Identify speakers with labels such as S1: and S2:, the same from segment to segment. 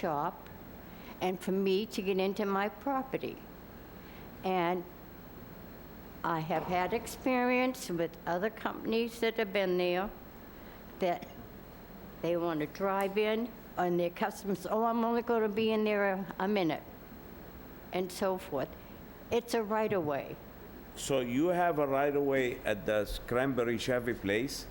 S1: shop and for me to get into my property. And I have had experience with other companies that have been there, that they want to drive in, and their customers, oh, I'm only going to be in there a- a minute, and so forth. It's a right-of-way.
S2: So you have a right-of-way at the Cranberry Chevy place,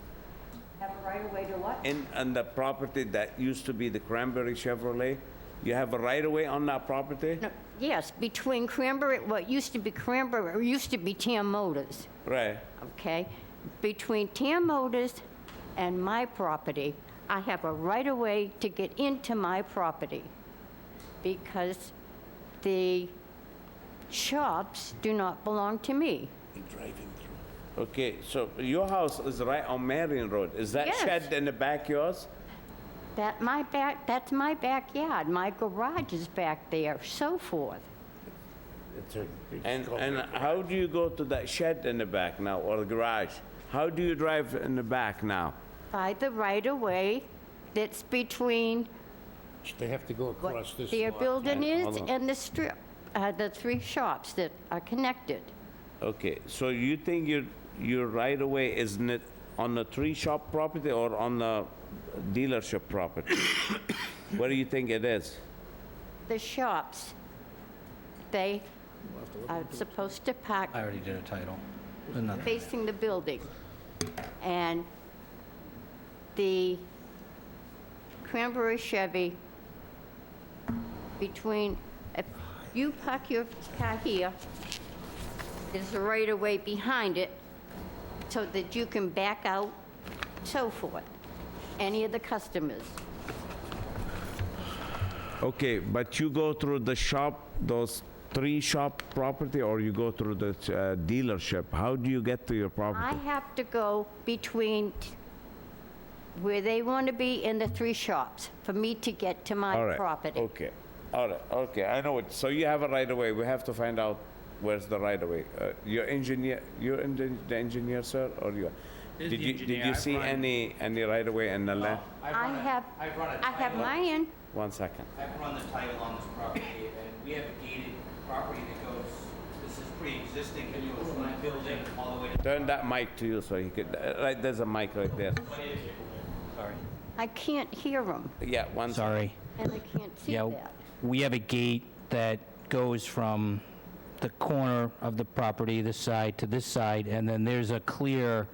S1: Have a right-of-way to what?
S2: in, on the property that used to be the Cranberry Chevrolet? You have a right-of-way on that property?
S1: No, Yes, between Cranberry, what used to be Cranberry, or used to be Tam Motors,
S2: Right,
S1: okay? Between Tam Motors and my property, I have a right-of-way to get into my property because the shops do not belong to me.
S2: okay, so your house is right on Marion Road. Is that
S1: Yes.
S2: shed in the back yours?
S1: That my back, that's my backyard, my garage is back there, so forth.
S2: And, and how do you go to that shed in the back now, or the garage? How do you drive in the back now?
S1: By the right-of-way that's between
S3: They have to go across
S1: what
S3: this
S1: their
S3: lot.
S1: building is
S2: Hold on.
S1: and the strip, uh, the three shops that are connected.
S2: Okay, so you think your, your right-of-way is n- on the tree shop property or on the dealership property? What do you think it is?
S1: The shops, they are supposed to park
S4: I already did a title. Another.
S1: facing the building. And the Cranberry Chevy between, if you park your car here, there's a right-of-way behind it so that you can back out, so forth, any of the customers.
S2: Okay, but you go through the shop, those three shop property, or you go through the uh, dealership? How do you get to your
S1: I
S2: property?
S1: have to go between t- where they want to be and the three shops for me to get to
S2: All
S1: my
S2: right,
S1: property.
S2: Okay, all right, okay, I know it. So you have a right-of-way, we have to find out where's the right-of-way. Uh, Your engineer, you're in the- the engineer, sir, or you?
S5: Is
S2: Did
S5: the
S2: you, did
S5: engineer,
S2: you
S5: I
S2: see
S5: find-
S2: any, any right-of-way in the land?
S1: I have,
S5: I've run a
S1: I have
S5: title.
S1: mine,
S2: One second.
S5: I've run the title on this property, and we have a gated property that goes, this is pre-existing, and you was my building all the way to,
S2: Turn that mic to you so he could, uh, right, there's a mic right there.
S5: sorry.
S1: I can't hear them,
S2: Yeah, one second.
S4: Sorry.
S1: and I can't see
S4: Yeah,
S1: that.
S4: we have a gate that goes from the corner of the property, this side, to this side, and then there's a clear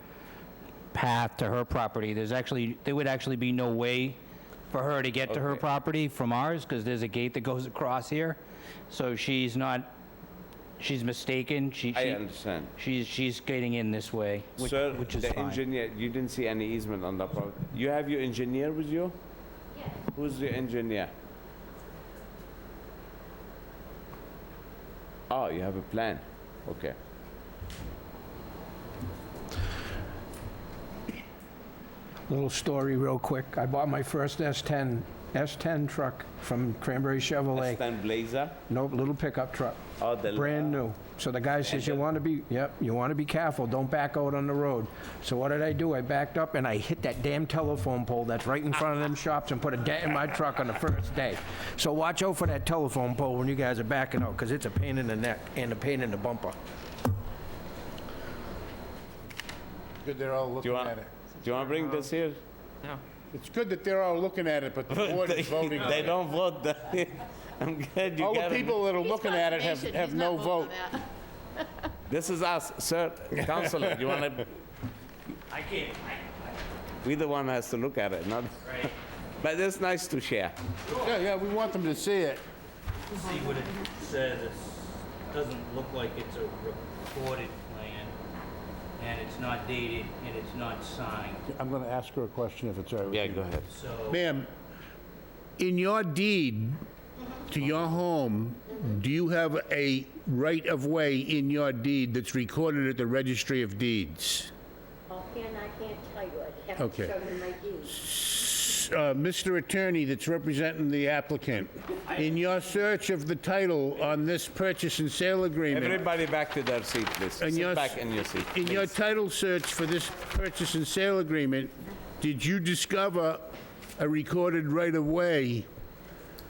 S4: path to her property. There's actually, there would actually be no way for her to get to her
S2: Okay.
S4: property from ours, because there's a gate that goes across here. So she's not, she's mistaken. She,
S2: I
S4: she-
S2: understand.
S4: She's, she's getting in this way, which
S2: Sir,
S4: which is
S2: the
S4: fine.
S2: engineer, you didn't see any easement on that property. You have your engineer with you? Who's the engineer? Oh, you have a plan, okay.
S6: Little story real quick. I bought my first S10, S10 truck from Cranberry Chevrolet.
S2: Stan Blazer?
S6: Nope, little pickup truck.
S2: Oh, the-
S6: Brand new. So the guy says, you want to be, yep, you want to be careful, don't back out on the road. So what did I do? I backed up and I hit that damn telephone pole that's right in front of them shops and put a dent in my truck on the first day. So watch out for that telephone pole when you guys are backing out, because it's a pain in the neck and a pain in the bumper.
S3: Good they're all
S2: Do
S3: looking
S2: you want,
S3: at
S2: do
S3: it.
S2: you want to bring this here?
S3: It's good that they're all looking at it, but the board is voting on
S2: They
S3: it.
S2: don't vote, the- I'm glad you
S3: All the
S2: got it.
S3: people that are looking at it have,
S7: Conservation,
S3: have
S7: he's
S3: no
S7: not voting
S3: vote.
S7: on that.
S2: This is us, sir, counselor, you want to,
S5: I can't, I,
S2: we the one has to look at it, not,
S5: I, right,
S2: but it's nice to share.
S3: Yeah, yeah, we want them to see it.
S5: see what it says, it doesn't look like it's a recorded plan, and it's not dated, and it's not signed,
S3: I'm going to ask her a question if it's all right with you.
S2: Yeah, go ahead.
S5: so.
S3: Ma'am, in your deed to your home, do you have a right-of-way in your deed that's recorded at the Registry of Deeds?
S1: Oh, and I can't tell you, I have to
S3: Okay.
S1: show you my deeds.
S3: Uh, Mr. Attorney that's representing the applicant, in your search of the title on this purchase and sale agreement,
S2: Everybody back to their seat, please.
S3: And
S2: Sit
S3: yes-
S2: back in your seat.
S3: in your
S2: please.
S3: title search for this purchase and sale agreement, did you discover a recorded right-of-way